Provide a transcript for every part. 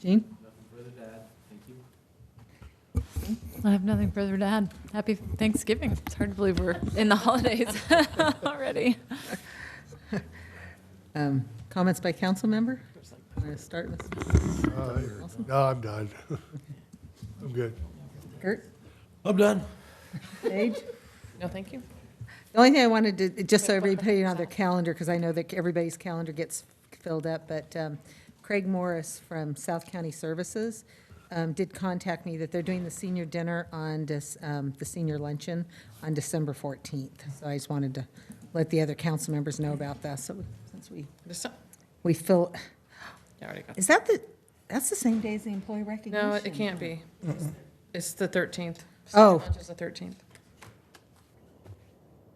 Dean? Further to add, thank you. I have nothing further to add. Happy Thanksgiving. It's hard to believe we're in the holidays already. Um, Comments by council member? I'm going to start with Uh, No, I'm done. I'm good. Kurt, I'm done. Paige? No, thank you. The only thing I wanted to, just so everybody put it on their calendar, because I know that everybody's calendar gets filled up, but um, Craig Morris from South County Services um, did contact me that they're doing the senior dinner on, Dec- um, the senior luncheon on December 14th. So I just wanted to let the other council members know about that, so since we, This- we fill, I already got- is that the, that's the same day as the employee recognition? No, it can't be. It's the 13th. Oh. Lunch is the 13th.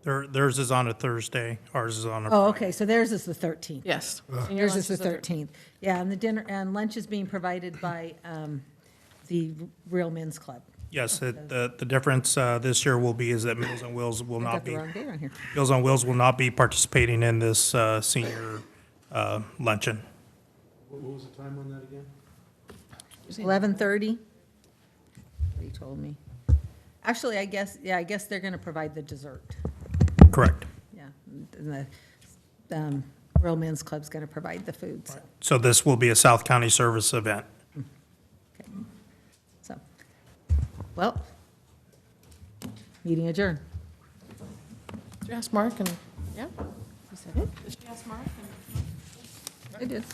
Their, theirs is on a Thursday, ours is on a. Oh, okay, so theirs is the 13th. Yes. Senior Yours lunch is the thir- 13th. Yeah, and the dinner, and lunch is being provided by um, the Real Men's Club. Yes, it- the, the difference uh, this year will be is that Meals on Wheels will I not got the be, wrong date on here. Meals on Wheels will not be participating in this uh, senior uh, luncheon. What what was the time on that again? 11:30? He told me. Actually, I guess, yeah, I guess they're going to provide the dessert. Correct. Yeah, and the um, Real Men's Club's going to provide the food, so. So this will be a South County Service event. So, well, meeting adjourned. Did you ask Mark and, yeah? He said, I did.